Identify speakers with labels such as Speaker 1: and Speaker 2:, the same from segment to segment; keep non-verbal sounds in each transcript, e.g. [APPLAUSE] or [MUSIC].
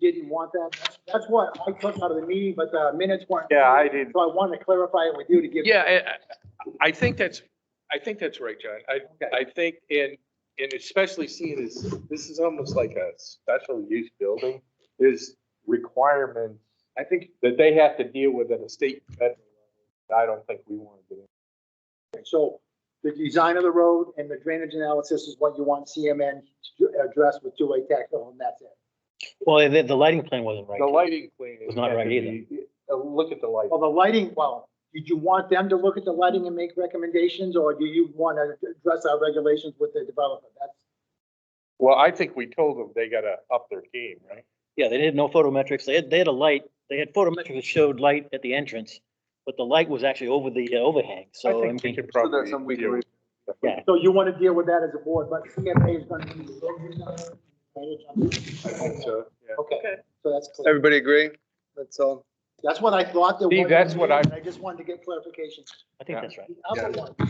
Speaker 1: didn't want that. That's- That's what I took out of the meeting, but the minutes weren't.
Speaker 2: Yeah, I didn't.
Speaker 1: So I wanted to clarify it with you to give.
Speaker 3: Yeah, I- I, I think that's, I think that's right, John. I,
Speaker 1: Okay.
Speaker 3: I think, and, and especially seeing this, this is almost like a special use building. There's requirements, I think, that they have to deal with at a state. and federal level. I don't think we want to do. it.
Speaker 1: So the design of the road and the drainage analysis is what you want CMN to address with two-way tactile, and that's it.
Speaker 4: Well, the, the lighting plan wasn't right.
Speaker 3: The lighting plan.
Speaker 4: It's not
Speaker 3: has
Speaker 4: right
Speaker 3: to
Speaker 4: either.
Speaker 3: be- uh, Look at the
Speaker 1: Well,
Speaker 3: lighting.
Speaker 1: the lighting, well, did you want them to look at the lighting and make recommendations, or do you want to address our regulations with the developer? That's,
Speaker 3: Well, I think we told them they gotta up their game, right?
Speaker 4: Yeah, they did no photometrics. They had, they had a light, they had photometrics that showed light at the entrance, but the light was actually over the uh, overhang,
Speaker 3: I
Speaker 4: so. I
Speaker 3: think we
Speaker 4: mean,
Speaker 3: could
Speaker 2: So
Speaker 3: probably.
Speaker 2: there's some
Speaker 3: deal
Speaker 2: legal.
Speaker 3: with-
Speaker 1: so you want to deal with that as a board, but CMA is going to be. the road design, drainage, I'm-
Speaker 3: I think so, yeah.
Speaker 1: Okay, so that's clear.
Speaker 2: Everybody agree? That's all.
Speaker 1: That's what I thought. there
Speaker 3: Steve,
Speaker 1: was,
Speaker 3: that's what I-
Speaker 1: and I just wanted to get clarification.
Speaker 4: I think that's right.
Speaker 1: The other one. the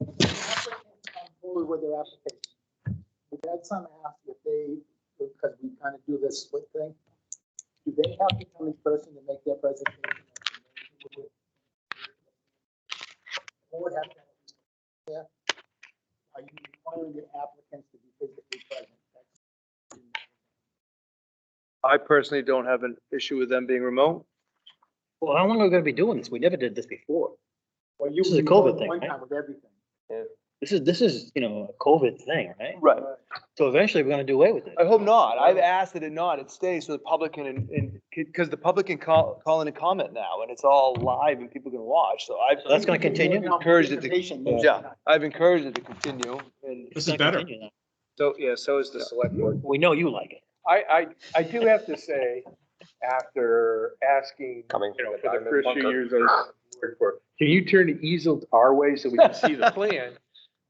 Speaker 1: applicant come Forward with their application. Did that son ask if they, because we kind of do this split thing, do they have to come in person to make their presentation? Or would have to, yeah? Are you requiring the applicants to be physically present?
Speaker 2: I personally don't have an issue with them being remote.
Speaker 4: Well, how long are we gonna be doing this? We never did this before.
Speaker 1: Well, you
Speaker 4: This is a
Speaker 1: were
Speaker 4: COVID
Speaker 1: doing
Speaker 4: thing,
Speaker 1: One
Speaker 4: right?
Speaker 1: time with everything.
Speaker 4: This is, this is, you know, a COVID thing, right?
Speaker 2: Right.
Speaker 4: So eventually we're gonna do away with it.
Speaker 2: I hope not. I've asked that it not, it stays so the public can, and, because the public can call, call in and comment now and it's all live and people can watch. So I've,
Speaker 4: So that's gonna continue?
Speaker 2: Encouraged it to-
Speaker 1: Presentation,
Speaker 2: yeah, I've encouraged it to continue and.
Speaker 5: This
Speaker 4: It's
Speaker 5: is
Speaker 4: gonna
Speaker 5: better.
Speaker 4: continue now.
Speaker 2: So, yeah, so is the select board.
Speaker 4: We know you like it.
Speaker 3: I, I, I do have to say, after asking,
Speaker 2: Coming
Speaker 3: you know,
Speaker 2: from the
Speaker 3: for the
Speaker 2: diamond
Speaker 3: first few
Speaker 2: bunker.
Speaker 3: years I worked for, can you turn the easel our way so we can see
Speaker 2: [LAUGHS]
Speaker 3: the plan?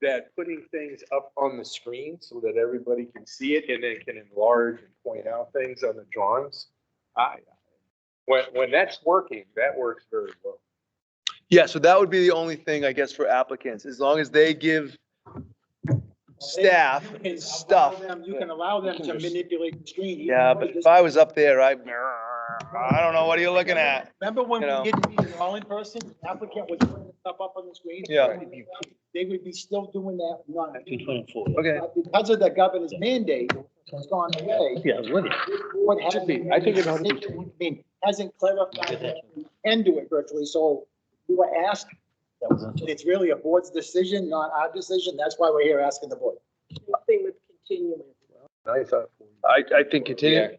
Speaker 3: That putting things up on the screen so that everybody can see it and then can enlarge and point out things on the drawings. I, when, when that's working, that works very well.
Speaker 2: Yeah, so that would be the only thing, I guess, for applicants, as long as they give staff
Speaker 1: You can allow
Speaker 2: stuff.
Speaker 1: them- You can allow them
Speaker 2: You
Speaker 1: to
Speaker 2: can just-
Speaker 1: manipulate the screen. even
Speaker 2: Yeah,
Speaker 1: though
Speaker 2: but
Speaker 1: this-
Speaker 2: if I was up there, I, I don't know, what are you looking at?
Speaker 1: Remember when
Speaker 2: you know.
Speaker 1: we did meetings all in person, The applicant was putting stuff up on the screen?
Speaker 2: Yeah.
Speaker 1: They would be still doing that, not,
Speaker 4: Between twenty and four.
Speaker 2: Okay,
Speaker 1: but because of the governor's mandate, it's gone away.
Speaker 4: Yeah, I was with you.
Speaker 1: What
Speaker 3: Should
Speaker 1: happened?
Speaker 3: be. I think it ought to be
Speaker 1: I mean, hasn't clarified that we can do it virtually, so we were asked,
Speaker 4: That was until-
Speaker 1: it's really a board's decision, not our decision, that's why we're here asking the board.
Speaker 6: They would continue as well.
Speaker 3: I thought.
Speaker 2: I, I think continue,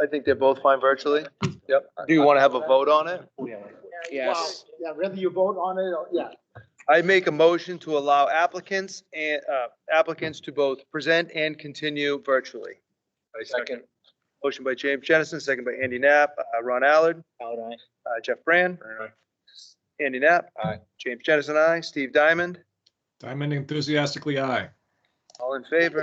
Speaker 2: I think they're both fine virtually. Yep. Do you want to have a vote on it?
Speaker 4: oh,
Speaker 6: Yes.
Speaker 1: Yeah, whether you vote on it, or, yeah,
Speaker 2: I make a motion to allow applicants and, uh, applicants to both present and continue virtually.
Speaker 3: I second.
Speaker 2: Motion by James Jennison, second by Andy Knapp, uh, Ron Allard,
Speaker 4: Out I-
Speaker 2: uh, Jeff Brand, Andy Knapp.
Speaker 3: Aye.
Speaker 2: James Jennison, I, Steve Diamond,
Speaker 5: Diamond enthusiastically aye.
Speaker 2: all in favor.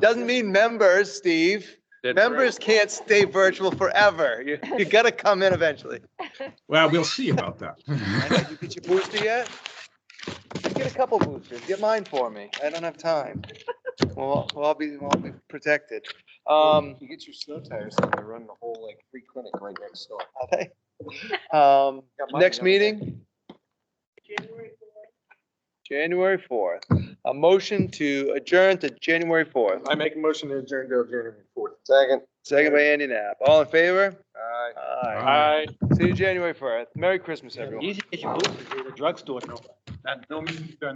Speaker 2: Doesn't mean members, Steve. Members can't stay virtual forever. You, you gotta come in eventually.
Speaker 5: Well, we'll see about
Speaker 2: I know,
Speaker 5: that.
Speaker 2: You get your booster yet? Get a couple boosters. Get mine for me. I don't have time. Well, I'll- I'll be, I'll be protected. Um,
Speaker 7: You get your snow tires and they run the whole like free clinic right next door.
Speaker 2: okay. Um,
Speaker 7: Got mine
Speaker 2: next
Speaker 7: the other day.
Speaker 2: meeting, January fourth. A motion to adjourn to January fourth.
Speaker 3: I make a motion to adjourn till January fourth.
Speaker 7: Second.
Speaker 2: Second by Andy Knapp. All in favor?
Speaker 7: Aye.
Speaker 2: Aye.
Speaker 5: Aye.
Speaker 2: See you January fourth. Merry Christmas, everyone.
Speaker 4: Easy to get your boots at the drugstore. No
Speaker 3: That don't mean